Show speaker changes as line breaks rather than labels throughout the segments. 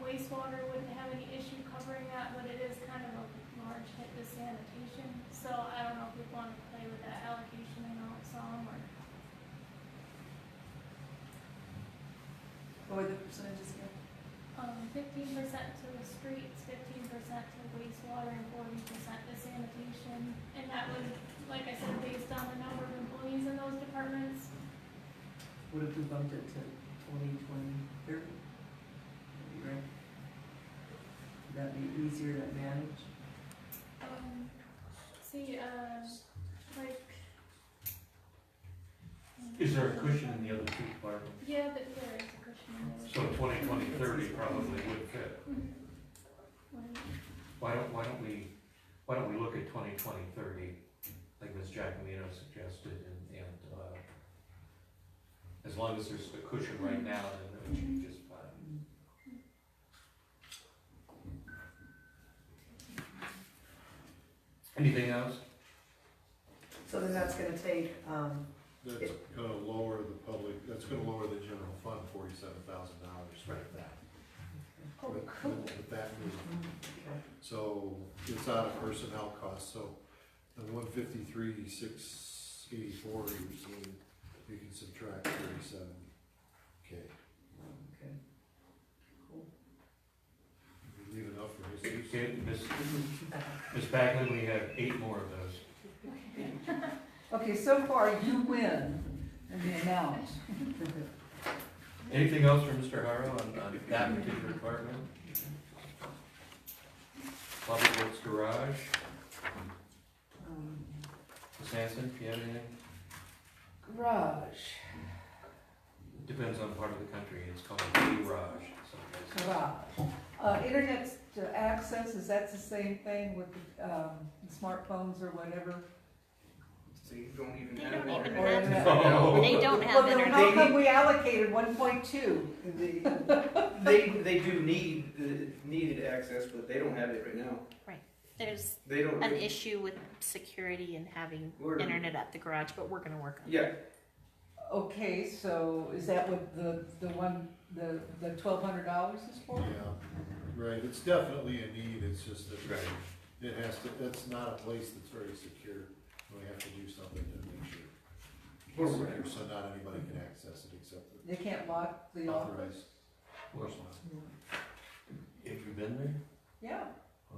wastewater wouldn't have any issue covering that, but it is kind of a large hit to sanitation. So I don't know if we want to play with that allocation and all some or.
What were Oh, the percentages again?
Um, fifteen percent to the streets, fifteen percent to wastewater, and forty percent to sanitation. And that was, like I said, based on the number of employees in those departments.
What if we bumped it to twenty, twenty, thirty? That'd be right. Would that be easier to manage?
Um, see, uh, like.
Is there a cushion in the other two departments?
Yeah, but there is a cushion in there.
So twenty, twenty, thirty probably would fit.
When-
Why don't, why don't we, why don't we look at twenty, twenty, thirty, like Ms. Giacomino suggested, and, and, uh, as long as there's a cushion right now, then it would be just fine. Anything else?
So then that's gonna take, um,
That's gonna lower the public, that's gonna lower the general fund forty-seven thousand dollars for that.
Oh,
With- with- With that move.
okay,
So it's out of personnel costs, so the one fifty-three, six eighty-four, you're seeing, you can subtract thirty-seven K.
okay. Cool.
Leave enough for his use.
Okay, Ms. Ms. Bagley, we have eight more of those.
Okay, so far you win in the amount.
Anything else from Mr. Harrow on, on that particular department? Public Works Garage,
Um,
Ms. Hanson, do you have anything?
Garage,
Depends on part of the country, it's called a garage someplace.
garage. Uh, internet to access, is that the same thing with, um, smartphones or whatever?
So you don't even
They
have
don't even
internet.
Or
have,
internet?
they don't
Well,
have
then
internet.
how come we allocated one point two?
They, they do need, the needed access, but they don't have it right now.
There's
They don't.
an issue with security and having
We're-
internet at the garage, but we're gonna work on it.
Yeah,
Okay, so is that what the, the one, the, the twelve hundred dollars is for?
Yeah, right, it's definitely a need, it's just that
Right.
it has to, that's not a place that's very secure. We have to do something to make sure.
Or-
it's secure, So not anybody can access it except
They can't lock
the
the office?
authorized
Have
personnel.
you been there?
Yeah,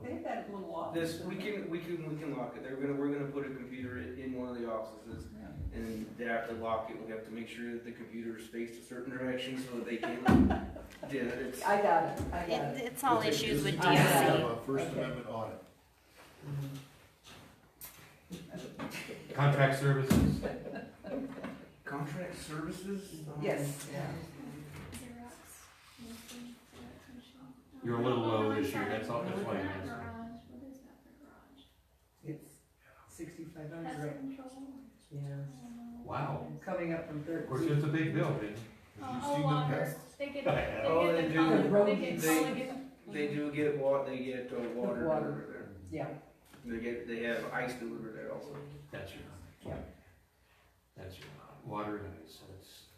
they have that little office.
this, we can, we can, we can lock it. They're gonna, we're gonna put a computer in in one of the offices
Yeah.
and they have to lock it. We have to make sure that the computer is faced a certain direction so that they can. Yeah, it's,
I got it, I got
It,
it.
it's all
This is-
issues with
this is kind
DOC.
of a First
Okay.
Amendment audit.
Contract services,
contract services? Um,
Yes, yeah.
Xerox, Wilson, Xerox machine.
You're a little low
Oh, I'm
this year,
sorry.
that's all- that's why you
Not
missed.
garage. What is that for garage?
It's sixty-five
Pest
hundred,
control? I
yes,
don't know.
wow,
coming up from
of course,
thirteen.
it's a big building.
Have you
Oh,
seen
oh,
the
water,
past?
they get, they get
Yeah.
the
Oh,
color,
they
they get
do.
The
color,
rodents.
again.
They do get wa, they get uh, water
Water.
delivered there.
Yeah,
They get, they have ice delivered there also.
That's your.
Yeah.
That's your, water and ice, that's. that's your-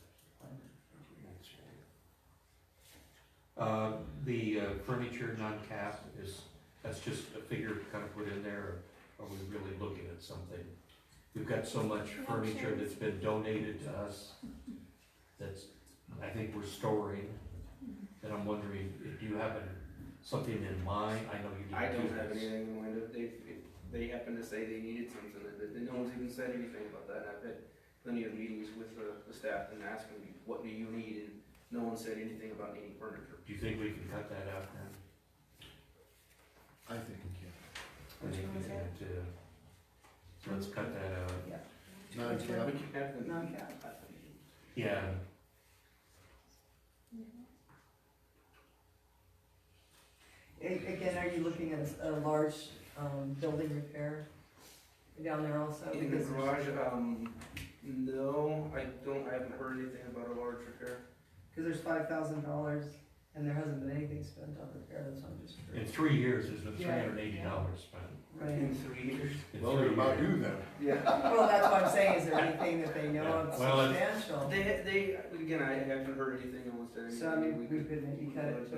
Uh, the uh, furniture non-cap is, that's just a figure kind of put in there, or are we really looking at something? We've got so much furniture that's been donated to us, that's, I think we're storing, and I'm wondering, do you have a- something in mind? I know you
I
didn't do
don't
this.
have anything in mind. If they, if they happen to say they needed something, that, that no one's even said anything about that. And I've had plenty of meetings with uh, the, the staff and asking, what do you need? And no one said anything about needing furniture.
Do you think we can cut that out then?
I think we can.
I think we
Which one
need to, so let's cut that out.
Non-cap,
We can have them.
Non-cap.
Yeah,
A- Again, are you looking at a large, um, building repair down there also?
In the
Because there's-
garage, um, no, I don't, I haven't heard anything about a large repair.
Cause there's five thousand dollars and there hasn't been anything spent on repair, that's why I'm just.
in three years, there's been three
Yeah.
hundred and eighty dollars spent.
Right,
In three years.
In
well,
three
what about
years.
you then?
Yeah.
well, that's what I'm saying, is there anything that they know of
Yeah. Well, it's-
substantial?
They, they, again, I haven't heard anything, no one said anything.
So I mean, we could maybe cut it to